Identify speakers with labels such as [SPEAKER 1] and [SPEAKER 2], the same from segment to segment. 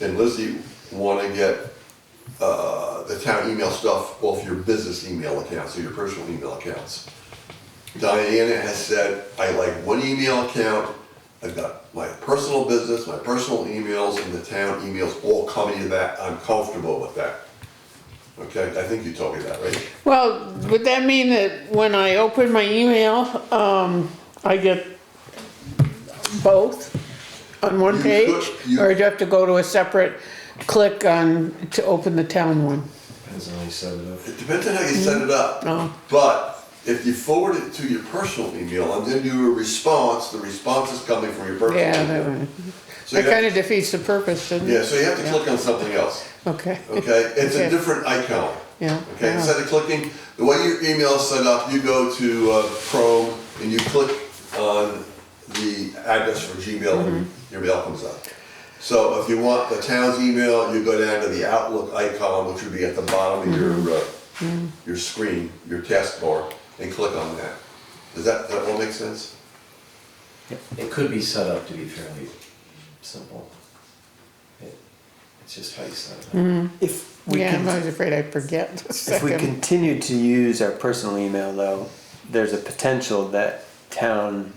[SPEAKER 1] and Lizzie want to get uh, the town email stuff off your business email accounts or your personal email accounts. Diana has said, I like one email account, I've got my personal business, my personal emails, and the town emails all coming to that, I'm comfortable with that. Okay, I think you told me that, right?
[SPEAKER 2] Well, would that mean that when I open my email, um, I get both on one
[SPEAKER 1] You
[SPEAKER 2] page?
[SPEAKER 1] could- you-
[SPEAKER 2] Or do you have to go to a separate click on, to open the town one?
[SPEAKER 3] Depends on how you set it up.
[SPEAKER 1] It depends on how you set it up.
[SPEAKER 2] Oh.
[SPEAKER 1] But if you forward it to your personal email and then do a response, the response is coming from your personal
[SPEAKER 2] Yeah,
[SPEAKER 1] email.
[SPEAKER 2] that one.
[SPEAKER 1] So
[SPEAKER 2] That
[SPEAKER 1] you
[SPEAKER 2] kinda
[SPEAKER 1] have,
[SPEAKER 2] defeats the purpose, doesn't it?
[SPEAKER 1] yeah, so you have to click on something else,
[SPEAKER 2] Okay.
[SPEAKER 1] okay? It's a
[SPEAKER 2] Okay.
[SPEAKER 1] different icon.
[SPEAKER 2] Yeah.
[SPEAKER 1] Okay,
[SPEAKER 2] yeah.
[SPEAKER 1] instead of clicking, the way your email is set up, you go to uh, Chrome and you click on the address for Gmail and
[SPEAKER 2] Mm-hmm.
[SPEAKER 1] your mail comes up. So if you want the town's email, you go down to the Outlook icon, which would be at the bottom of
[SPEAKER 2] Mm-hmm.
[SPEAKER 1] your, uh, your screen, your taskbar, and click on that. Does that, that all make sense?
[SPEAKER 3] It could be set up to be fairly simple. It- It's just how you set it up.
[SPEAKER 4] If we
[SPEAKER 2] Yeah, I'm
[SPEAKER 4] can,
[SPEAKER 2] always afraid I forget the
[SPEAKER 4] if we
[SPEAKER 2] second.
[SPEAKER 4] continue to use our personal email though, there's a potential that town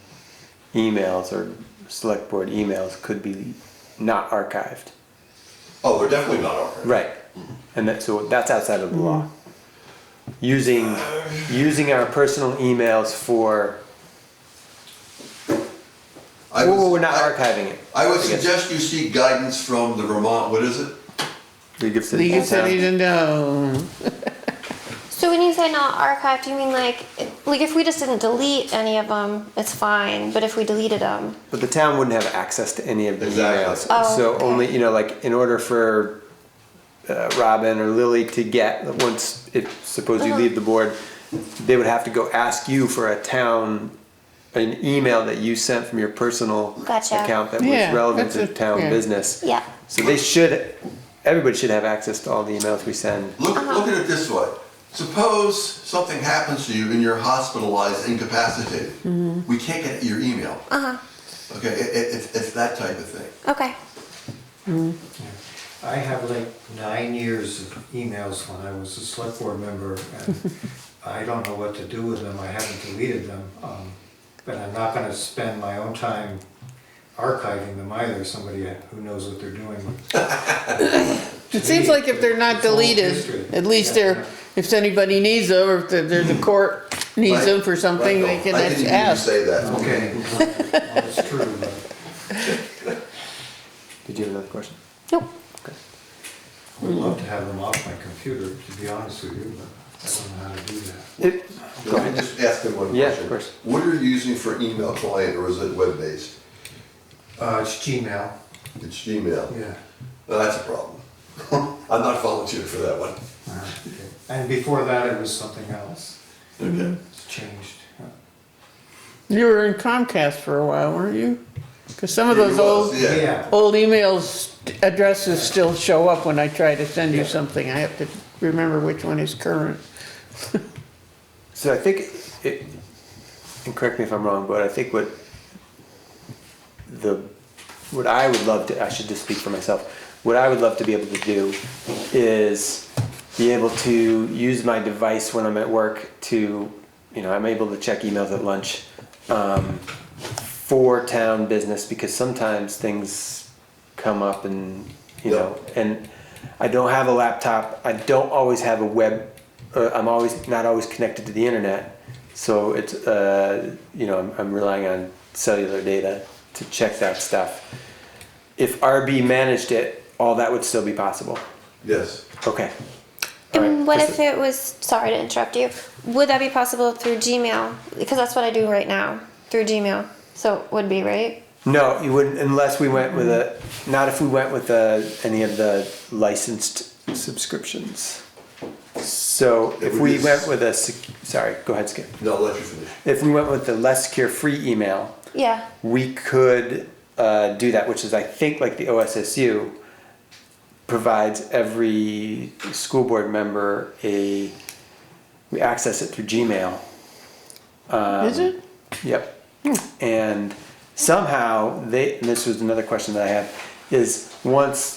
[SPEAKER 4] emails or select board emails could be not archived.
[SPEAKER 1] Oh, they're definitely not archived.
[SPEAKER 4] Right. And that, so that's outside of the law.
[SPEAKER 2] Mm.
[SPEAKER 4] Using, using our personal emails for,
[SPEAKER 1] I
[SPEAKER 4] well,
[SPEAKER 1] would-
[SPEAKER 4] we're not
[SPEAKER 1] I-
[SPEAKER 4] archiving it.
[SPEAKER 1] I would
[SPEAKER 4] I guess.
[SPEAKER 1] suggest you seek guidance from the Vermont, what is it?
[SPEAKER 4] League of Cities
[SPEAKER 2] Legal
[SPEAKER 4] and Towns.
[SPEAKER 2] Cities and Towns.
[SPEAKER 5] So when you say not archived, you mean like, it- like if we just didn't delete any of them, it's fine. But if we deleted them,
[SPEAKER 4] But the town wouldn't have access to any of the
[SPEAKER 1] Exactly.
[SPEAKER 4] emails.
[SPEAKER 5] Oh,
[SPEAKER 4] so
[SPEAKER 5] okay.
[SPEAKER 4] only, you know, like in order for uh, Robin or Lily to get, once, if, suppose
[SPEAKER 5] Uh-huh.
[SPEAKER 4] you leave the board, they would have to go ask you for a town, an email that you sent from your personal
[SPEAKER 5] Gotcha.
[SPEAKER 4] account that
[SPEAKER 2] Yeah,
[SPEAKER 4] was relevant to
[SPEAKER 2] that's a-
[SPEAKER 4] town
[SPEAKER 2] yeah.
[SPEAKER 4] business.
[SPEAKER 5] yeah.
[SPEAKER 4] So they should, everybody should have access to all the emails we send.
[SPEAKER 1] Look,
[SPEAKER 2] Uh-huh.
[SPEAKER 1] look at it this way. Suppose something happens to you and you're hospitalized, incapacitated.
[SPEAKER 2] Mm-hmm.
[SPEAKER 1] We can't get your email.
[SPEAKER 2] Uh-huh.
[SPEAKER 5] Uh huh.
[SPEAKER 1] Okay, it, it, it's, it's that type of thing.
[SPEAKER 5] Okay.
[SPEAKER 6] I have like nine years of emails when I was a select board member, and I don't know what to do with them, I haven't deleted them. um, But I'm not gonna spend my own time archiving them either, somebody who knows what they're doing.
[SPEAKER 2] It seems like if they're not
[SPEAKER 6] It's all
[SPEAKER 2] deleted,
[SPEAKER 6] history.
[SPEAKER 2] at least they're, if anybody needs them, or if the- there's a court
[SPEAKER 1] Hmm.
[SPEAKER 2] needs
[SPEAKER 1] Right?
[SPEAKER 2] them for something, they
[SPEAKER 1] Right,
[SPEAKER 2] can
[SPEAKER 1] I didn't
[SPEAKER 2] ask.
[SPEAKER 1] hear you say that.
[SPEAKER 6] Okay, that's true, but.
[SPEAKER 4] Did you have another question?
[SPEAKER 5] Nope.
[SPEAKER 6] Would love to have them off my computer, to be honest with you, but I don't know how to do that.
[SPEAKER 4] It, go
[SPEAKER 1] Let me
[SPEAKER 4] ahead.
[SPEAKER 1] just ask him one question.
[SPEAKER 4] Yeah, of course.
[SPEAKER 1] What are you using for email client or is it web-based?
[SPEAKER 6] Uh, it's Gmail,
[SPEAKER 1] It's Gmail.
[SPEAKER 6] yeah.
[SPEAKER 1] Well, that's a problem. I'm not volunteering for that one.
[SPEAKER 6] Uh, okay. And before that, it was something else,
[SPEAKER 1] Okay.
[SPEAKER 6] it's changed. yeah.
[SPEAKER 2] You were in Comcast for a while, weren't you? Because some of
[SPEAKER 1] Yeah,
[SPEAKER 2] those
[SPEAKER 1] he was,
[SPEAKER 2] old,
[SPEAKER 1] Yeah.
[SPEAKER 6] Yeah,
[SPEAKER 2] old emails, addresses still show up when I try to send you something. I have to remember which one is current.
[SPEAKER 4] So I think it, and correct me if I'm wrong, but I think what the, what I would love to, I should just speak for myself. What I would love to be able to do is be able to use my device when I'm at work to, you know, I'm able to check emails at lunch um, for town business because sometimes things come up and, you
[SPEAKER 1] Yeah.
[SPEAKER 4] know, and I don't have a laptop. I don't always have a web. Uh, I'm always not always connected to the internet, so it's uh, you know I'm, I'm relying on cellular data to check that stuff. If RB managed it, all that would still be possible.
[SPEAKER 1] Yes.
[SPEAKER 4] Okay. All right.
[SPEAKER 5] And what
[SPEAKER 4] Just-
[SPEAKER 5] if it was? Sorry to interrupt you. Would that be possible through Gmail? Because that's what I do right now through Gmail. So it would be right.
[SPEAKER 4] No, you wouldn't unless we went with a. Not if we went with a, any of the licensed subscriptions. So
[SPEAKER 1] It
[SPEAKER 4] if
[SPEAKER 1] would
[SPEAKER 4] we
[SPEAKER 1] be-
[SPEAKER 4] went with a. sec- Sorry, go ahead, Skip.
[SPEAKER 1] No, I'll let you finish.
[SPEAKER 4] If we went with the less secure free email,
[SPEAKER 5] Yeah.
[SPEAKER 4] we could uh, do that, which is I think like the OSSU provides every school board member a we access it through Gmail. Um,
[SPEAKER 2] Is it?
[SPEAKER 4] Yep. And somehow they and this was another question that I had is once